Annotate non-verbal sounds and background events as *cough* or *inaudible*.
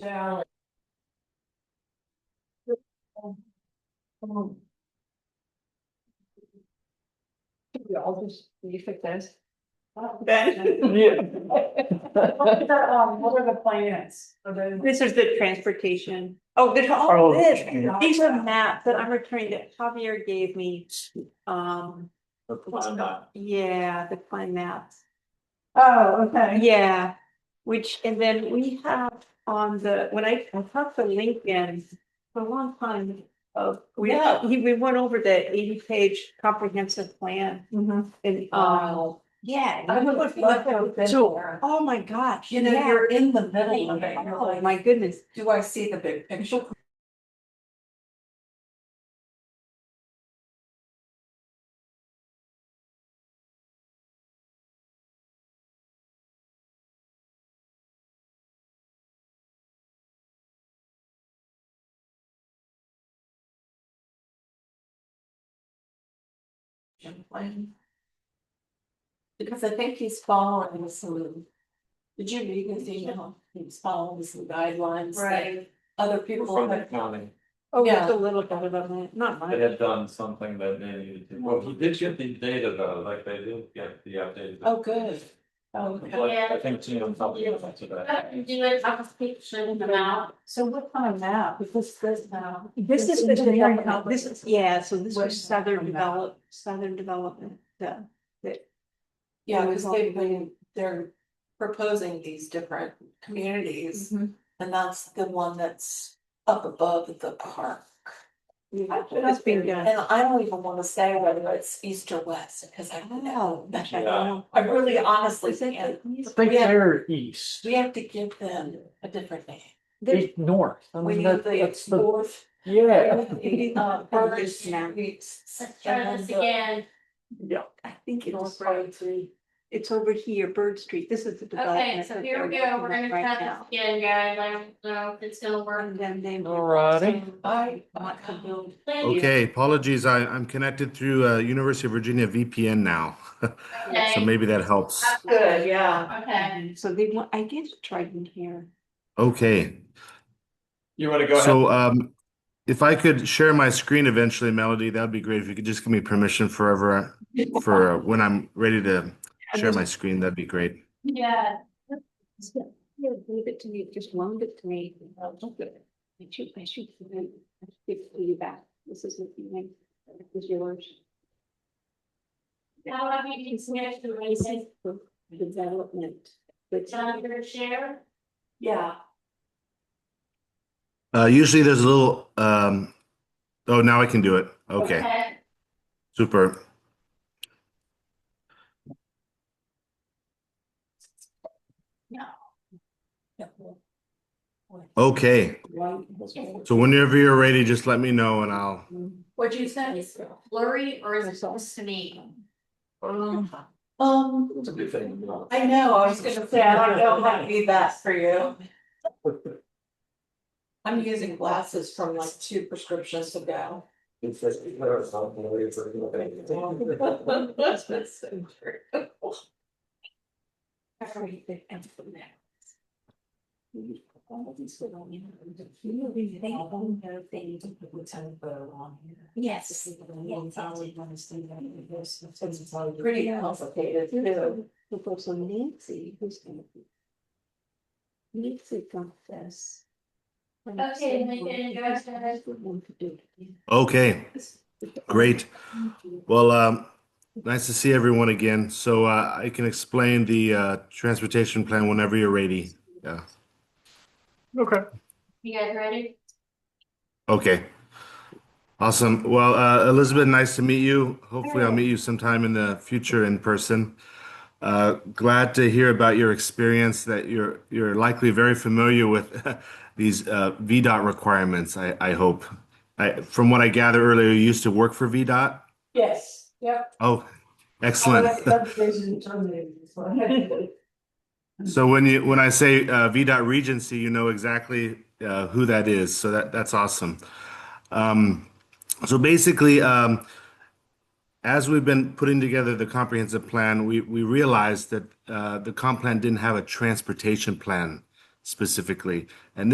down. Come on. Can we all just leave it this? *laughs* Ben, What are the, *laughs* um, what are the plans? Are they- this is the transportation. Oh, there's all Oh, this. yeah. These are maps that I'm returning that Javier gave me. Um, yeah, the plan maps. Oh, okay. Yeah, which, and then we have on the, when I, I talked to Lincoln for a long time of, we, Yeah. he- we went over the eighty page comprehensive plan Mhm. and, um, Wow. yeah. I would love to have been So, there. oh my gosh, You know, yeah. you're in the middle of it. You're Oh, like, my goodness. do I see the big picture? Plan. Because I think he's following some. Did you read his email? He's following some guidelines. that Other people From the have. county, Oh, Yeah. it's a little bit of a, not they much. had done something that they needed to, well, he did get the data though, like they did get the updated. Oh, good. Oh, Okay. Like, I think Jim told me about today. Do it, I'll keep showing them out. So what kind of map? Because this now. This is the Engineering development, this outlook. is, yeah, so this What's was southern happening now? develop, southern development, yeah. Yeah, because they've been, they're proposing these different communities, and that's the one that's up above the park. That's being done. And I don't even want to say whether it's east or west, because I don't know. Gosh, I don't know. I really honestly Is it can't. the east? think We have- they're east, We have to give them a different name. There's- east north. I We mean, need that- Um, the that's the, north. yeah, *laughs* we need, uh, Burridge Streets, Let's try and this then the again. yeah. I think North it's, Road Street. it's over here, Bird Street, this is the development. Okay, so that here we they're go. We're working gonna on right try now. this again, guys. I don't know if it's gonna work. And then they. Alrighty. I want to build Thank you. Okay, apologies. I, I'm connected through uh, University of Virginia VPN now. *laughs* so Okay, maybe that helps. Good, yeah. okay. So they want, I guess Triton here. Okay. You wanna go ahead? So um, if I could share my screen eventually, Melody, that would be great. If you could just give me permission forever uh, for uh, when I'm ready to share my screen, that'd be great. Yeah, Yeah, leave it to me, just loan it to me. I'll look at it. I should, I should, I should give it to you back. This is what you make, this is yours. now I need to switch to races. Development. But John, you're gonna share? Yeah, Uh, usually there's a little, um, oh, now I can do it. Okay, super. Okay, so whenever you're ready, just let me know and I'll. what'd you say? Blurry or is it supposed to me? Um, It's a good thing. you know. I know, I was gonna say, I don't know how to do that for you. *laughs* I'm using glasses from like two prescriptions ago. It's just- it's not something where it's like, okay. *laughs* That's so true. Yes. Pretty complicated too. also Nancy, who's gonna be. Nancy got this. Okay, Lincoln, go ahead. Okay, great. Well, um, nice to see everyone again. So uh, I can explain the uh, transportation plan whenever you're ready. Okay. You guys ready? Okay. Awesome. Well, uh, Elizabeth, nice to meet you. Hopefully, I'll meet you sometime in the future in person. Uh, glad to hear about your experience that you're you're likely very familiar with *laughs* these uh, VDOT requirements, I, I hope. I, from what I gather earlier, you used to work for VDOT? Yes, yep. Oh, All excellent. that subdivision terminated, so I had to- So when you when I say uh, VDOT Regency, you know exactly uh, who that is. So that that's awesome. Um, so basically, um, as we've been putting together the comprehensive plan, we we realized that uh, the comp plan didn't have a transportation plan specifically, and